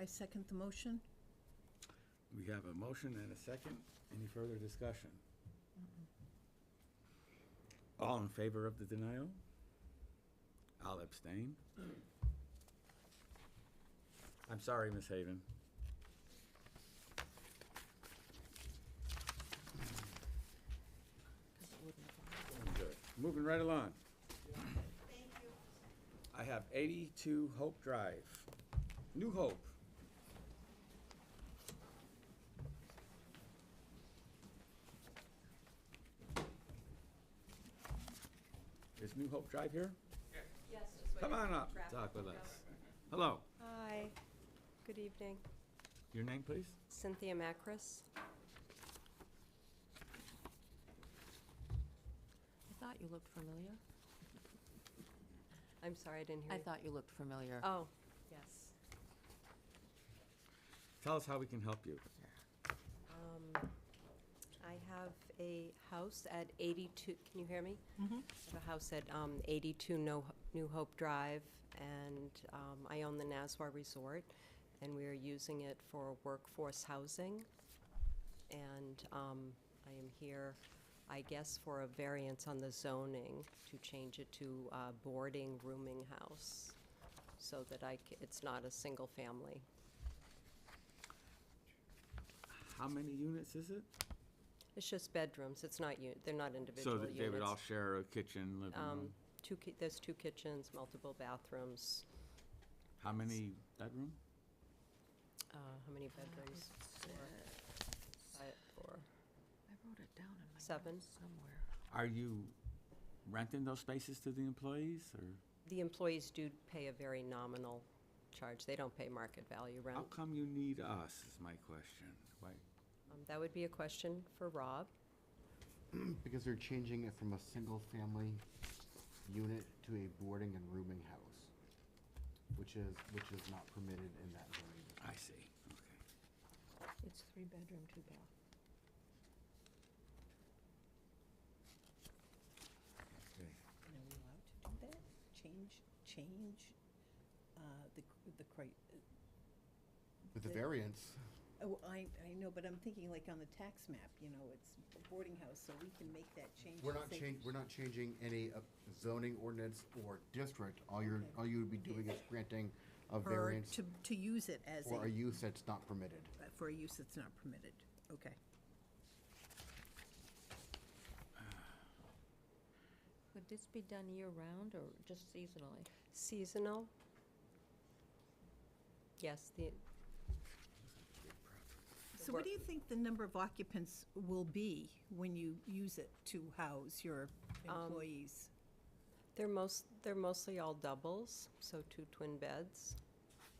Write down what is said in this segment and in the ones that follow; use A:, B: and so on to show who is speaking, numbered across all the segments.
A: I second the motion.
B: We have a motion and a second. Any further discussion? All in favor of the denial? I'll abstain. I'm sorry, Miss Haven. Good. Moving right along. I have eighty-two Hope Drive, New Hope. Is New Hope Drive here?
C: Yes, just
B: Come on up,
C: Traffic.
B: talk with us. Hello,
C: Hi, good evening.
B: your name, please?
C: Cynthia Macris.
D: I thought you looked familiar.
C: I'm sorry, I didn't hear
D: I
C: you.
D: thought you looked familiar.
C: Oh, yes.
B: Tell us how we can help you.
C: Um, I have a house at 82, can you hear me?
A: Mhm.
C: I have a house at um, 82 No- New Hope Drive, and um, I own the Nassau Resort, and we are using it for workforce housing. And um, I am here, I guess, for a variance on the zoning to change it to uh, boarding rooming house, so that I, c- it's not a single family.
B: How many units is it?
C: It's just bedrooms, it's not, u- they're not individual
B: So
C: units.
B: that they would all share a kitchen, living
C: Um,
B: room?
C: two, ki- there's two kitchens, multiple bathrooms,
B: How many bedroom?
C: uh, how many bedrooms? Four, five, four.
D: I wrote it down in my
C: Seven.
D: notes somewhere.
B: Are you renting those spaces to the employees or
C: The employees do pay a very nominal charge, they don't pay market value rent.
B: how come you need us is my question. Why?
C: Um, That would be a question for Rob.
E: Because they're changing it from a single-family unit to a boarding and rooming house, which is, which is not permitted in that zoning district.
B: I see, okay.
D: It's three bedroom, two bath.
A: And are we allowed to do that? Change, change uh, the, cr- the cri,
E: With the
A: They-
E: variance,
A: oh, I, I know, but I'm thinking like on the tax map, you know, it's a boarding house, so we can make that change.
E: we're
A: and
E: not
A: say-
E: changing, we're not changing any of zoning ordinance or district. All you're,
A: Okay.
E: all you would be doing is granting a
A: or
E: variance
A: To, to use it as
E: for a
A: a,
E: use that's not permitted.
A: for a use that's not permitted. Okay.
F: Would this be done year-round or just seasonally?
C: Seasonal? Yes, the,
A: So what do you think the number of occupants will be when you use it to house your
D: Um,
A: employees?
C: they're most, they're mostly all doubles, so two twin beds.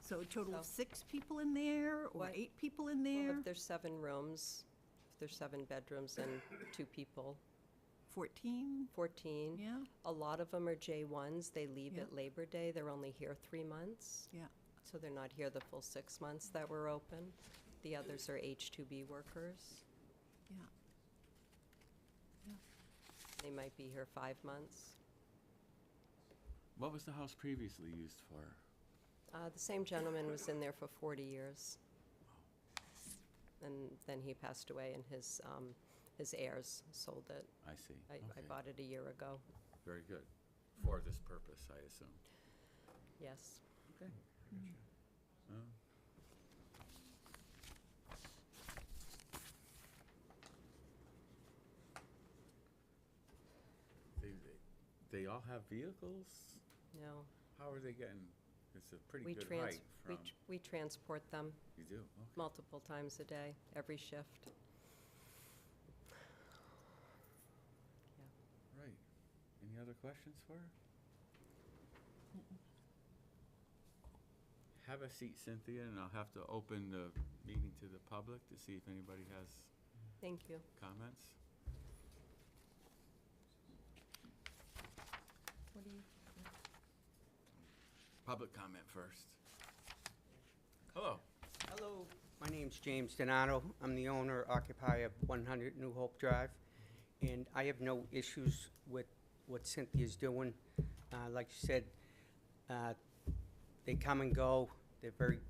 A: So a total of
C: so-
A: six people in there, or
C: What?
A: eight people in
C: Well,
A: there?
C: If there's seven rooms, if there's seven bedrooms and two people,
A: Fourteen?
C: 14.
A: Yeah,
C: A lot of them are J1s. They leave
A: Yeah.
C: at Labor Day. They're only here three months,
A: yeah.
C: so they're not here the full six months that we're open. The others are H2B workers.
A: Yeah. Yeah.
C: They might be here five months.
B: What was the house previously used for?
C: Uh, The same gentleman was in there for 40 years, and then he passed away, and his, um, his heirs sold it.
B: I see.
C: I- I
B: Okay,
C: bought it a year ago,
B: Very good. For this purpose, I assume.
C: yes.
B: Okay. They, they- they all have vehicles?
C: No,
B: How are they getting, it's a pretty
C: we
B: good
C: trans,
B: height
C: we
B: from,
C: tr- we transport them
B: you do, okay.
C: multiple times a day, every shift.
B: right. Any other questions for her? Have a seat Cynthia, and I'll have to open the meeting to the public to see if anybody has
C: Thank you.
B: comments.
F: What do you,
B: Public comment first. Hello.
G: Hello, my name's James Donato. I'm the owner occupier of 100 New Hope Drive, and I have no issues with what Cynthia's doing. Uh, Like you said, uh, they come and go, they're very